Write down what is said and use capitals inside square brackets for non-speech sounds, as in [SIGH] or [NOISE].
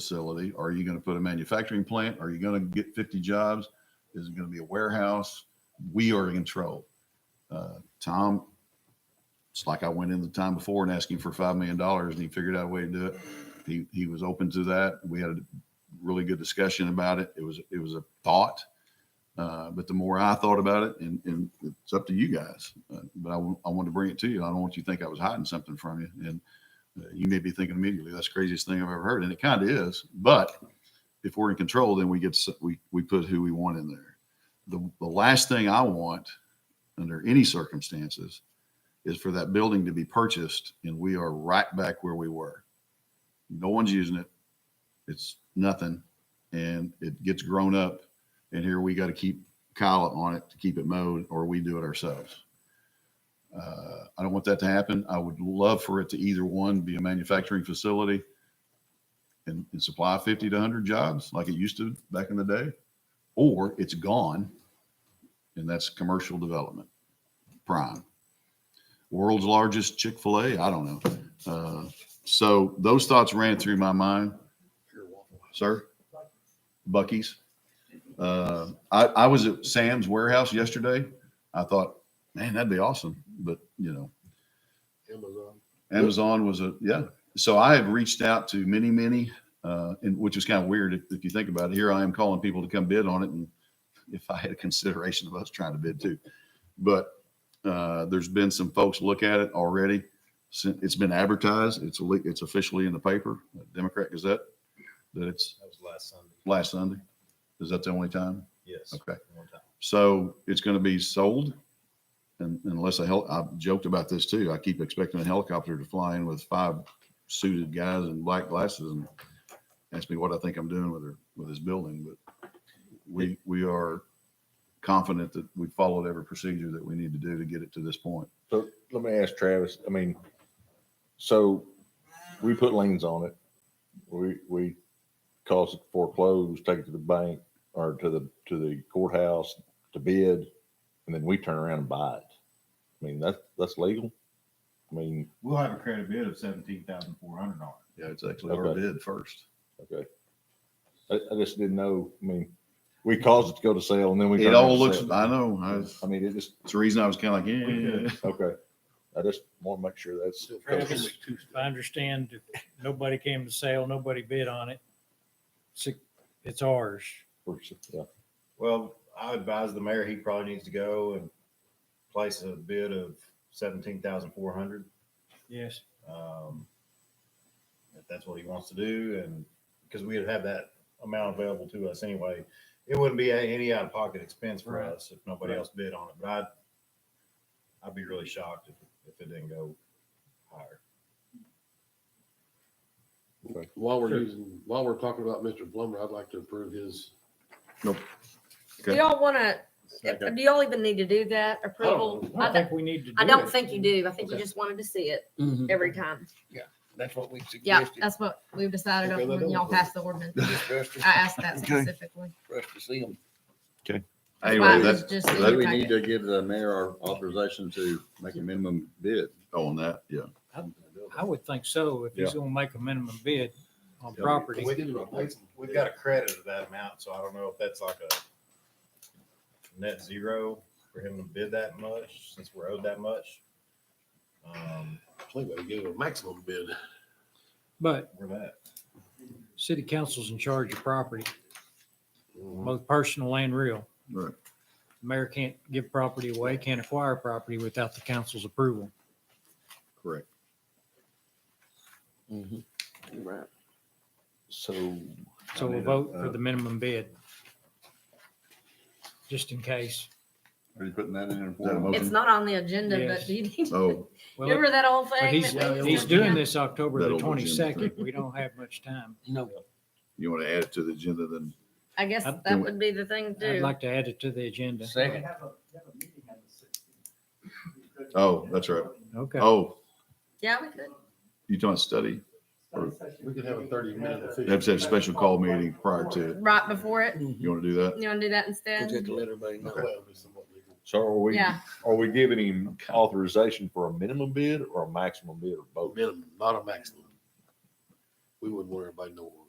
facility? Are you going to put a manufacturing plant? Are you going to get 50 jobs? Is it going to be a warehouse? We are in control. Uh, Tom, it's like I went in the time before and asking for $5 million and he figured out a way to do it. He, he was open to that. We had a really good discussion about it. It was, it was a thought. Uh, but the more I thought about it and, and it's up to you guys, uh, but I wa- I wanted to bring it to you. I don't want you to think I was hiding something from you. And uh, you may be thinking immediately, that's the craziest thing I've ever heard. And it kind of is. But if we're in control, then we get, s- we, we put who we want in there. The, the last thing I want under any circumstances is for that building to be purchased and we are right back where we were. No one's using it. It's nothing. And it gets grown up. And here we got to keep Kyle on it to keep it mowed or we do it ourselves. Uh, I don't want that to happen. I would love for it to either one be a manufacturing facility and, and supply 50 to 100 jobs like it used to back in the day, or it's gone and that's commercial development. Prime. World's largest Chick fil A. I don't know. Uh, so those thoughts ran through my mind. Sir? Bucky's. Uh, I, I was at Sam's warehouse yesterday. I thought, man, that'd be awesome. But, you know, Amazon. Amazon was a yeah. So I have reached out to many, many, uh, and which is kind of weird if, if you think about it. Here I am calling people to come bid on it, and if I had a consideration of us trying to bid too, but uh, there's been some folks look at it already. Sin- It's been advertised. It's le- it's officially in the paper, Democrat Gazette, that it's That was last Sunday. last Sunday. Is that the only time? Yes. Okay. One time. So it's going to be sold. And unless a hel, I joked about this too. I keep expecting a helicopter to fly in with five suited guys in black glasses and ask me what I think I'm doing with her, with this building. But we, we are confident that we followed every procedure that we need to do to get it to this point. So let me ask Travis, I mean, so we put liens on it. We, we cause it foreclosed, take it to the bank or to the, to the courthouse to bid. And then we turn around and buy it. I mean, that's, that's legal. I mean, We'll have a credit bid of seventeen thousand four hundred dollars. Yeah, it's actually our Okay. bid first. okay. I, I just didn't know, I mean, we caused it to go to sale and then we. It turn around all and looks, sell it. I know, I, it's I mean, it just, the reason I was kind of like, [LAUGHS] yeah. okay. I just want to make sure that's. Travis, if I understand, if nobody came to sale, nobody bid on it. It's- It's ours. Yeah. Well, I advise the mayor, he probably needs to go and place a bid of seventeen thousand four hundred. Yes. Um, if that's what he wants to do and, because we'd have that amount available to us anyway. It wouldn't be a- any out of pocket expense for Right. us if nobody Right. else bid on it, but I'd, I'd be really shocked if, if it didn't go higher. While we're Sure. using, while we're talking about Mr. Plummer, I'd like to approve his. Okay. You don't want to, do y'all even need to do that approval? Oh, Oh, I I don't think don't, we need to do I don't it. think you do. I think you Okay. just wanted to see it Mm-hmm. every time. That's what we Yeah, suggested, that's what we've decided Okay, on that when y'all doesn't- passed the ordinance. for us to, I asked that Okay. specifically. for us to see them. Anyway, Mine was that's, just in Maybe your we packet. need to give the mayor our authorization to make a minimum bid. on that, yeah. I would think so. If he's gonna make a minimum bid on property. We didn't, we, we've got a credit of that amount, so I don't know if that's like a net zero for him to bid that much, since we're owed that much. Um, I think we gave a maximum bid. But we're that. city council's in charge of property, both personal and real. Mm-hmm. Right. Mayor can't give property away, can't acquire property without the council's approval. Correct. So uh, So we'll vote uh, for the minimum bid. Just in case. Are you putting that in? there Is that a for motion? him? It's not on the agenda, Yes. but do you need, Oh. Well, [LAUGHS] remember that old But thing? he's, that we he's used to doing have? this October the That'll be Jim's twenty-second. We don't have much time. No, You want to add it to the agenda, then I guess I'd do that it. would be the thing to I'd do. like to add it to the agenda. second, Oh, that's right. Okay. Oh, Yeah, we could. you don't study. We could have a thirty minute. They have to have a special call meeting prior to it. Right before it. You want to do that? You want to do that we'll instead? just let everybody know. So are we, Yeah. are we giving him authorization for a minimum Oh, bid or a maximum bid or both? Minimum, not a maximum. We wouldn't want everybody to know.